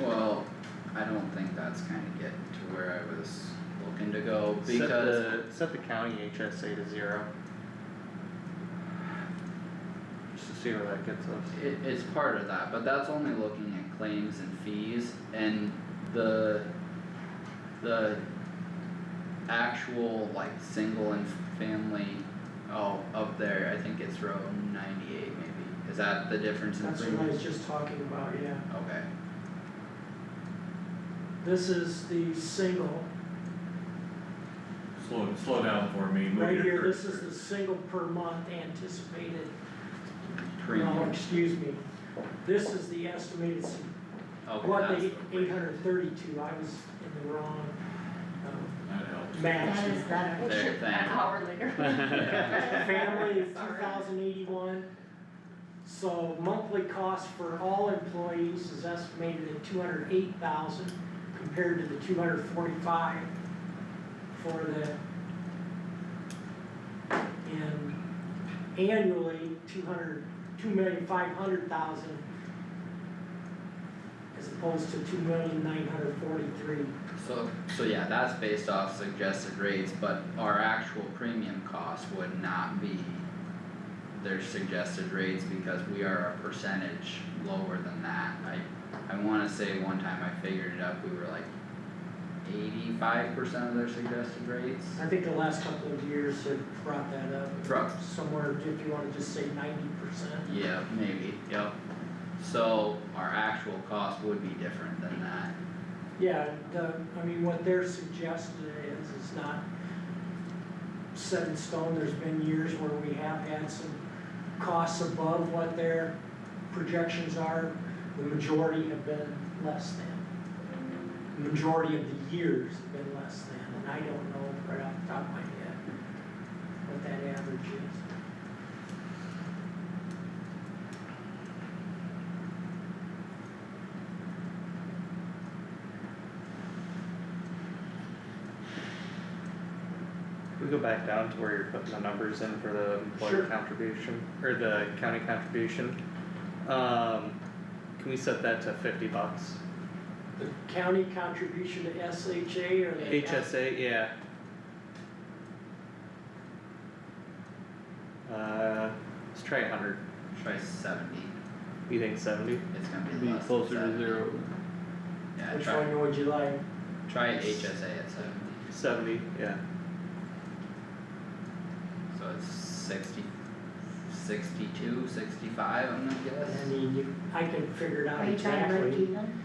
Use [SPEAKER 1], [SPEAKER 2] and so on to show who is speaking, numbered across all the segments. [SPEAKER 1] Well, I don't think that's kinda getting to where I was looking to go
[SPEAKER 2] Set
[SPEAKER 1] because,
[SPEAKER 2] the, set the county HSA to zero. Just to see where that gets us.
[SPEAKER 1] It, it's part of that, but that's only looking at claims and fees and the, the actual like single and family, oh, up there, I think it's row ninety-eight maybe, is that the difference in
[SPEAKER 3] That's what I
[SPEAKER 1] premiums?
[SPEAKER 3] was just talking about, yeah.
[SPEAKER 1] Okay,
[SPEAKER 3] This is the single,
[SPEAKER 4] Slow, slow down for me. move
[SPEAKER 3] right
[SPEAKER 4] your
[SPEAKER 3] here, this is
[SPEAKER 4] cursor.
[SPEAKER 3] the single per month anticipated, no,
[SPEAKER 1] premium,
[SPEAKER 3] excuse me. This is the estimated, s-
[SPEAKER 1] okay,
[SPEAKER 3] what,
[SPEAKER 1] that's
[SPEAKER 3] the
[SPEAKER 1] the-
[SPEAKER 3] eight hundred thirty-two, I was in the wrong, um,
[SPEAKER 4] That helps.
[SPEAKER 5] That is
[SPEAKER 3] match.
[SPEAKER 5] better.
[SPEAKER 1] There, thank
[SPEAKER 5] An
[SPEAKER 1] you.
[SPEAKER 5] hour later.
[SPEAKER 3] Family is two
[SPEAKER 5] Sorry.
[SPEAKER 3] thousand eighty-one. So monthly cost for all employees is estimated at two hundred eight thousand compared to the two hundred forty-five for the and annually, two hundred, two million five hundred thousand as opposed to two million nine hundred forty-three.
[SPEAKER 1] So, so yeah, that's based off suggested rates, but our actual premium cost would not be their suggested rates because we are a percentage lower than that. I, I wanna say one time I figured it up, we were like eighty-five percent of their suggested rates.
[SPEAKER 3] I think the last couple of years have brought that up.
[SPEAKER 1] Right.
[SPEAKER 3] somewhere, if you wanna just say ninety percent.
[SPEAKER 1] Yeah, maybe, yep. So our actual cost would be different than that.
[SPEAKER 3] Yeah, the, I mean, what they're suggesting is, is not set in stone, there's been years where we have had some costs above what their projections are, the majority have been less than. The Majority of the years have been less than, and I don't know right off the top of my head what that average is.
[SPEAKER 2] Can We go back down to where you're putting the numbers in for the
[SPEAKER 3] Sure.
[SPEAKER 2] employer contribution, or the county contribution. Um, can we set that to fifty bucks?
[SPEAKER 3] The county contribution to SHA or the.
[SPEAKER 2] HSA, yeah. Uh, let's try a hundred,
[SPEAKER 1] Try seventy,
[SPEAKER 2] you think seventy?
[SPEAKER 1] it's gonna be
[SPEAKER 6] Be
[SPEAKER 1] less than
[SPEAKER 6] closer to
[SPEAKER 1] 70.
[SPEAKER 6] zero.
[SPEAKER 1] Yeah,
[SPEAKER 3] Which
[SPEAKER 1] try,
[SPEAKER 3] one would you like?
[SPEAKER 1] try HSA at seventy.
[SPEAKER 2] Seventy, yeah.
[SPEAKER 1] So it's sixty, sixty-two, sixty-five, I'm gonna
[SPEAKER 3] I
[SPEAKER 1] guess.
[SPEAKER 3] mean, you, I can figure it
[SPEAKER 5] Are
[SPEAKER 3] out
[SPEAKER 5] you trying to break
[SPEAKER 3] exactly.
[SPEAKER 5] even?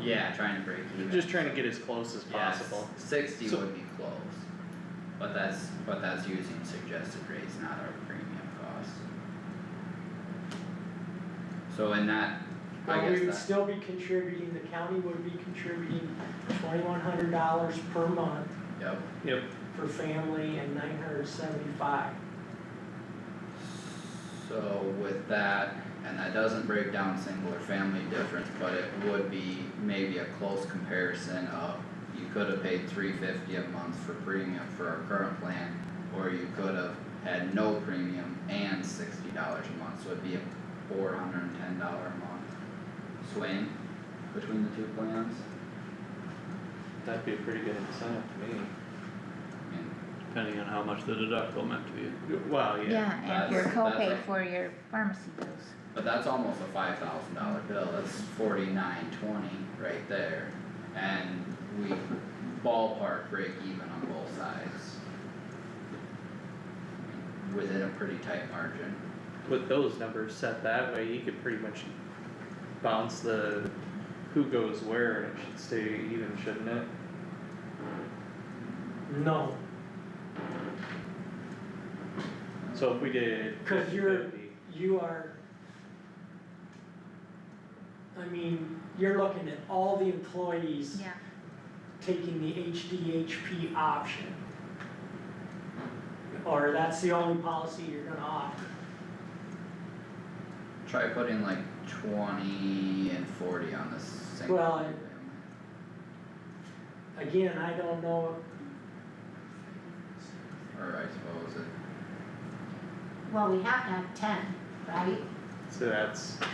[SPEAKER 1] Yeah, trying to break even.
[SPEAKER 2] Just trying to get as close as
[SPEAKER 1] Yeah,
[SPEAKER 2] possible.
[SPEAKER 1] Sixty
[SPEAKER 2] So-
[SPEAKER 1] would be close, but that's, but that's using suggested rates, not our premium cost. So in that, I
[SPEAKER 3] But we would
[SPEAKER 1] guess that,
[SPEAKER 3] still be contributing, the county would be contributing twenty-one hundred dollars per month
[SPEAKER 1] yep,
[SPEAKER 2] Yep.
[SPEAKER 3] for family and nine hundred seventy-five.
[SPEAKER 1] so with that, and that doesn't break down single or family difference, but it would be maybe a close comparison of you could have paid three fifty a month for premium for our current plan, or you could have had no premium and sixty dollars a month, so it'd be a four hundred and ten dollar a month swing between the two plans.
[SPEAKER 2] That'd be a pretty good incentive to
[SPEAKER 1] I mean,
[SPEAKER 6] depending on how much the deductible meant to you.
[SPEAKER 2] me. Well, yeah,
[SPEAKER 1] and your That's- that's copay a-
[SPEAKER 7] for your pharmacy bills.
[SPEAKER 1] But that's almost a five thousand dollar bill, that's forty-nine twenty right there, and we ballpark break even on both sides. Within a pretty tight margin,
[SPEAKER 2] with those numbers set that way, you could pretty much bounce the who goes where and it should stay even, shouldn't it?
[SPEAKER 3] No,
[SPEAKER 2] So if we did
[SPEAKER 3] 'Cause you're-
[SPEAKER 2] 50,
[SPEAKER 3] you are, I mean, you're looking at all the employees
[SPEAKER 7] Yeah,
[SPEAKER 3] taking the HDHP option. Or that's the only policy you're gonna offer.
[SPEAKER 1] try putting like twenty and forty on this single.
[SPEAKER 3] Well,
[SPEAKER 1] family.
[SPEAKER 3] Again, I don't know,
[SPEAKER 1] Or I suppose it
[SPEAKER 5] Well, we have to have ten, right?
[SPEAKER 2] so that's